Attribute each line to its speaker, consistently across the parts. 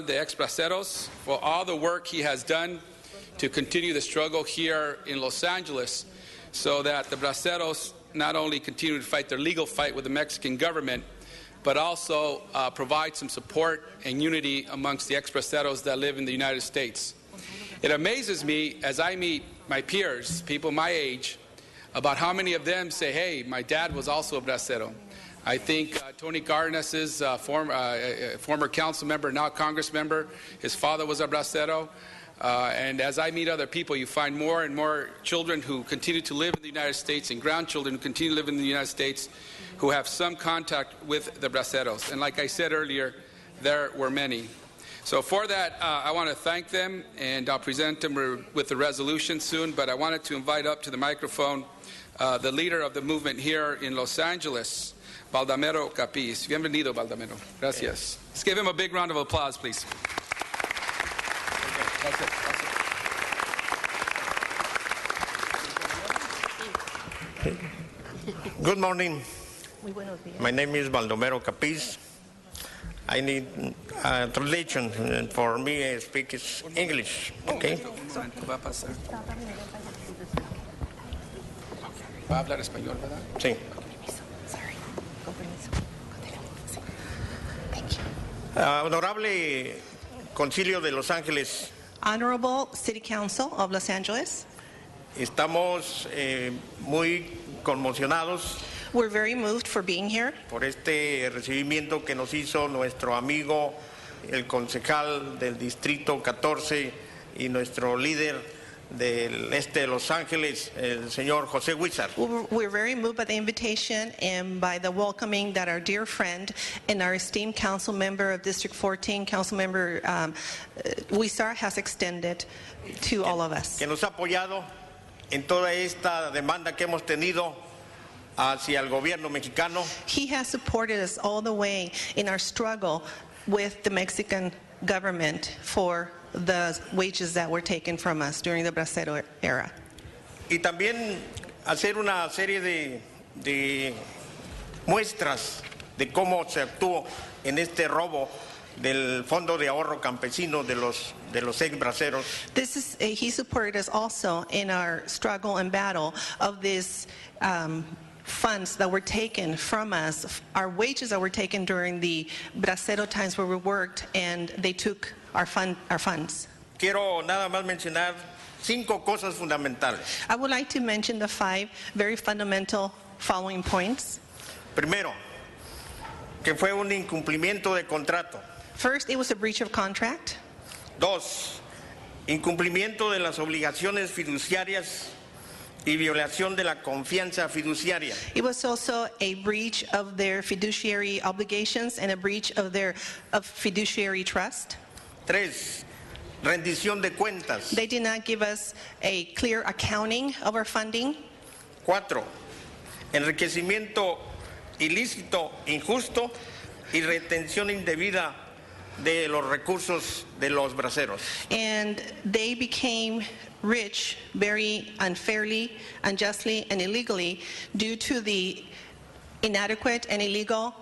Speaker 1: de Exbraceros for all the work he has done to continue the struggle here in Los Angeles so that the Braceros not only continue to fight their legal fight with the Mexican government, but also uh, provide some support and unity amongst the Exbraceros that live in the United States. It amazes me as I meet my peers, people my age, about how many of them say, hey, my dad was also a Bracero. I think uh, Tony Garnes is uh, form, uh, former council member, now Congress member. His father was a bracero. Uh, and as I meet other people, you find more and more children who continue to live in the United States and grandchildren who continue to live in the United States who have some contact with the braceros. And like I said earlier, there were many. So for that, uh, I want to thank them, and I'll present them re- with the resolution soon. But I wanted to invite up to the microphone uh, the leader of the movement here in Los Angeles, Baldamero Capiz. Bienvenido, Baldamero. Gracias. Let's give him a big round of applause, please.
Speaker 2: Good morning.
Speaker 3: Muy buenos días.
Speaker 2: My name is Baldomero Capiz. I need uh, translation and for me. I speak is English. Okay.
Speaker 1: Un momento, va a pasar. Va a hablar español, ¿verdad?
Speaker 2: Sí.
Speaker 3: Sorry. Con permiso. Continúa. Sí. Thank you.
Speaker 2: Ah, honorable Concilio de Los Ángeles,
Speaker 3: Honorable City Council of Los Angeles,
Speaker 2: estamos eh, muy conmocionados
Speaker 3: we're very moved for being here
Speaker 2: por este recibimiento que nos hizo nuestro amigo, el concejal del Distrito 14 y nuestro líder del este de Los Ángeles, el señor José Huizar.
Speaker 3: We're we're very moved by the invitation and by the welcoming that our dear friend and our esteemed council member of District 14, Councilmember um, uh, Wisar, has extended to all of us.
Speaker 2: que nos ha apoyado en toda esta demanda que hemos tenido hacia el gobierno mexicano
Speaker 3: He has supported us all the way in our struggle with the Mexican government for the wages that were taken from us during the Bracero era.
Speaker 2: y también hacer una serie de, de muestras de cómo se actuó en este robo del Fondo de Ahorro Campesino de los, de los ex braceros
Speaker 3: This is, uh, he supported us also in our struggle and battle of these um, funds that were taken from us, f- our wages that were taken during the Bracero times where we worked and they took our, fund, our funds.
Speaker 2: Quiero nada más mencionar cinco cosas fundamentales.
Speaker 3: I would like to mention the five very fundamental following points.
Speaker 2: Primero, que fue un incumplimiento de contrato.
Speaker 3: First, it was a breach of contract.
Speaker 2: Dos, incumplimiento de las obligaciones fiduciarias y violación de la confianza fiduciaria.
Speaker 3: It was also a breach of their fiduciary obligations and a breach of their of fiduciary trust.
Speaker 2: Tres, rendición de cuentas.
Speaker 3: They did not give us a clear accounting of our funding.
Speaker 2: Cuatro, enriquecimiento ilícito, injusto y retención indebida de los recursos de los braceros.
Speaker 3: And they became rich very unfairly, unjustly, and illegally due to the inadequate and illegal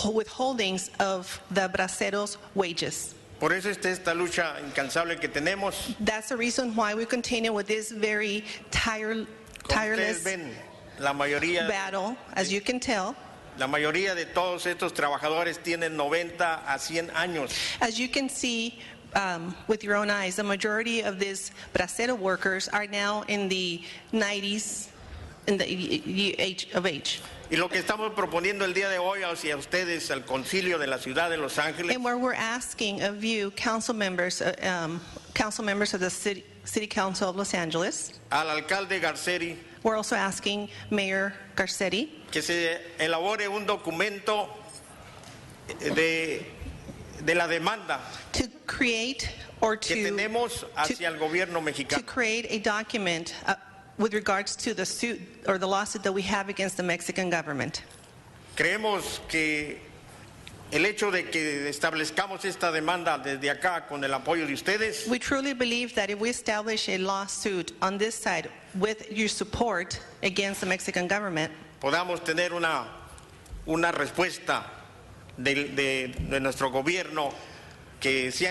Speaker 3: withholdings of the braceros' wages.
Speaker 2: Por eso está esta lucha incansable que tenemos.
Speaker 3: That's the reason why we continue with this very tire,
Speaker 2: Como ustedes
Speaker 3: tireless
Speaker 2: ven, la mayoría
Speaker 3: battle, as you can tell.
Speaker 2: La mayoría de todos estos trabajadores tienen 90 a 100 años.
Speaker 3: As you can see um, with your own eyes, the majority of these bracero workers are now in the 90s in the y- y- age of age.
Speaker 2: Y lo que estamos proponiendo el día de hoy hacia ustedes, al concilio de la ciudad de Los Ángeles,
Speaker 3: And where we're asking of you, council members, uh, um, council members of the city, city council of Los Angeles,
Speaker 2: al alcalde Garceri,
Speaker 3: we're also asking Mayor Garcetti
Speaker 2: que se elabore un documento de, de la demanda
Speaker 3: to create or
Speaker 2: que
Speaker 3: to
Speaker 2: tenemos hacia el gobierno
Speaker 3: to
Speaker 2: mexicano.
Speaker 3: create a document uh, with regards to the suit or the lawsuit that we have against the Mexican government.
Speaker 2: Creemos que el hecho de que establezcamos esta demanda desde acá con el apoyo de ustedes
Speaker 3: We truly believe that if we establish a lawsuit on this side with your support against the Mexican government,
Speaker 2: podamos tener una, una respuesta del- de, de nuestro gobierno que se han